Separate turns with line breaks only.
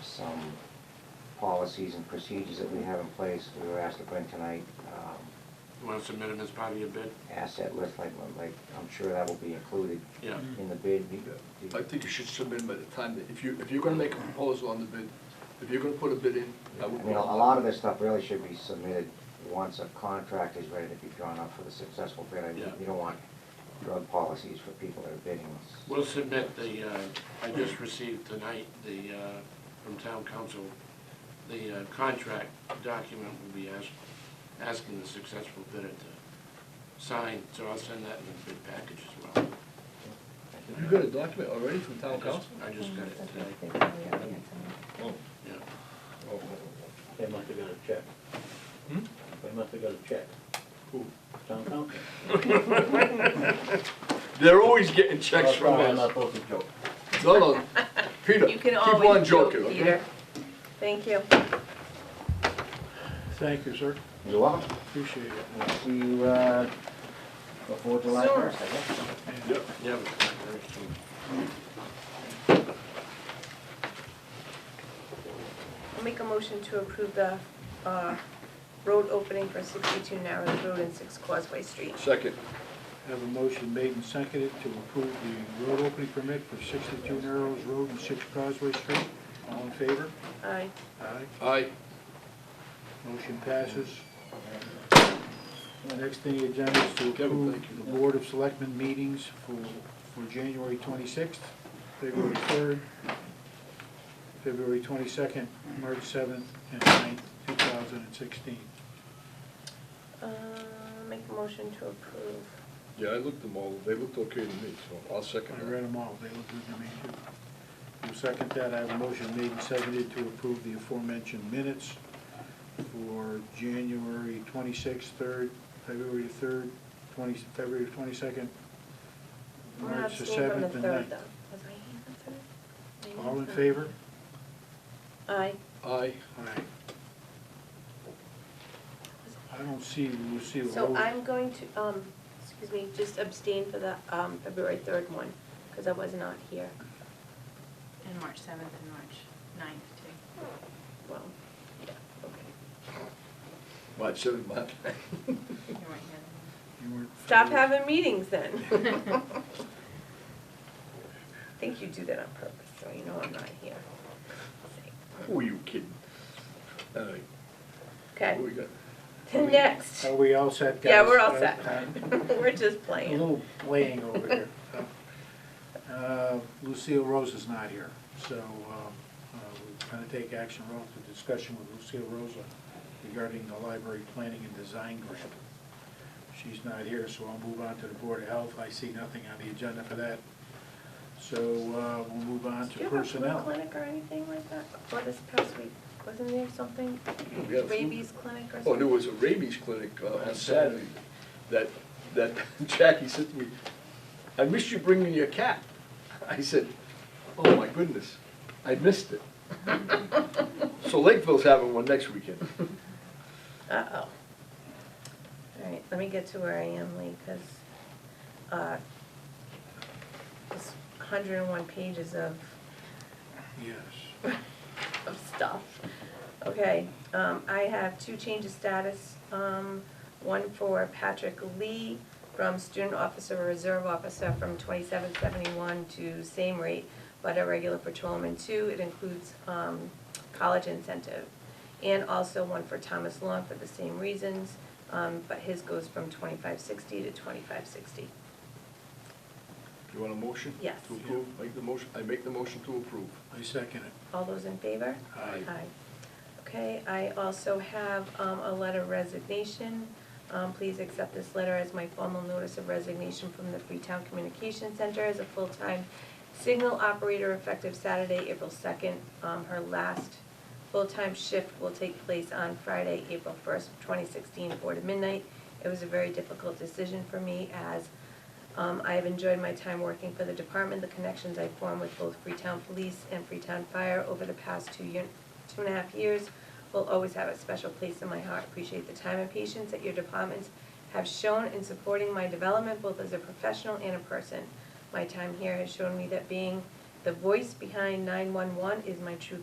some policies and procedures that we have in place. We were asked to bring tonight, um,
You want to submit it as part of your bid?
asset list, like, like, I'm sure that will be included
Yeah.
in the bid.
I think you should submit by the time, that if you, if you're gonna make a proposal on the bid, if you're gonna put a bid in, I
I
would.
mean, a a lot of this stuff really should be submitted once a contract is ready to be drawn up for the successful bid. I mean,
Yeah.
You don't want drug policies for people that are bidding. It's-
We'll submit the, uh, I just received tonight, the, uh, from town council, the uh, contract document will be asked, asking the successful bidder to sign, so I'll send that in the bid package as well.
You got a document already from
I
town
just-
council?
I just got it
Mm-hmm.
today, yeah.
Oh,
They must have got a check.
Hmm?
They must have got a check.
Who?
Town council.
They're always getting checks from
I'm not
us.
supposed to joke.
No, no, Peter,
You can
keep
always.
on joking, okay?
Peter. Thank you.
Thank you, sir.
You're welcome.
Appreciate it.
We'll see you, uh, before July
Sure.
first, I guess.
Yep.
Yeah, but it's very soon.
I'll make a motion to approve the, uh, road opening for sixty-two Narrows Road and Six Causeway Street.
Second,
Have a motion made and seconded to approve the road opening permit for 62 Narrows Road and 6 Causeway Street. All in favor?
Aye.
Aye.
aye.
Motion passes. The Next thing on the agenda is to
Kevin,
approve
thank you.
the Board of Selectmen meetings for, for January 26th, February 3rd, February 22nd, March 7th, and 9th, 2016.
Uh, make a motion to approve.
Yeah, I looked them all, they looked okay to me, so I'll second
I
that.
read them all, they look good to me too. Will second that, I have a motion made and seconded to approve the aforementioned minutes for January twenty-sixth, third, February third, twenty, February twenty-second,
I'm gonna
March the
abstain from the
seventh and
third
ninth.
though. Was my hand up for that?
All in favor?
Aye.
Aye,
Aye. I don't see Lucille
So
Road.
I'm going to, um, excuse me, just abstain for the, um, February third one, because I was not here.
And March 7th and March 9th, too.
Well, yeah, okay.
March seventh, March ninth.
You weren't here then.
You weren't-
Stop having meetings then. I think you do that on purpose, so you know I'm not here.
Who are you kidding? All right,
Okay,
who we got?
next.
Are we all set, guys?
Yeah, we're all
Uh,
set.
uh,
We're just
A
playing.
little playing over here. Uh, Lucille Rose is not here, so um, uh, we're going to take action relative to discussion with Lucille Rosa regarding the library planning and design grant. She's not here, so I'll move on to the Board of Health. I see nothing on the agenda for that. So uh, we'll move on
Do you have
to
a flu
personnel.
clinic or anything like that? Well, this past week, wasn't there something?
We have-
Rabies clinic or something?
Oh, there was a rabies clinic uh, on Saturday that, that Jackie said to me, I missed you bringing your cat. I said, oh my goodness, I missed it. So Lakeville's having one next weekend.
Uh-oh. All right, let me get to where I am, Lee, because, uh, it's hundred and one pages of
Yes.
of stuff. Okay, um, I have two change of status, um, one for Patrick Lee from student officer, reserve officer from twenty-seven seventy-one to same rate, but a regular patrolman too, it includes, um, college incentive. And also one for Thomas Long for the same reasons, um, but his goes from twenty-five sixty to twenty-five sixty.
You want a motion?
Yes.
To approve, make the motion, I make the motion to approve.
I second it.
All those in favor?
Aye.
Okay, I also have um, a letter of resignation. Um, Please accept this letter as my formal notice of resignation from the Freetown Communication Center as a full-time signal operator effective Saturday, April 2nd. Um, Her last full-time shift will take place on Friday, April 1st, 2016, 4 to midnight. It was a very difficult decision for me as um, I have enjoyed my time working for the department, the connections I formed with both Freetown Police and Freetown Fire over the past two year, two and a half years will always have a special place in my heart. Appreciate the time and patience that your departments have shown in supporting my development, both as a professional and a person. My time here has shown me that being the voice behind nine-one-one is my true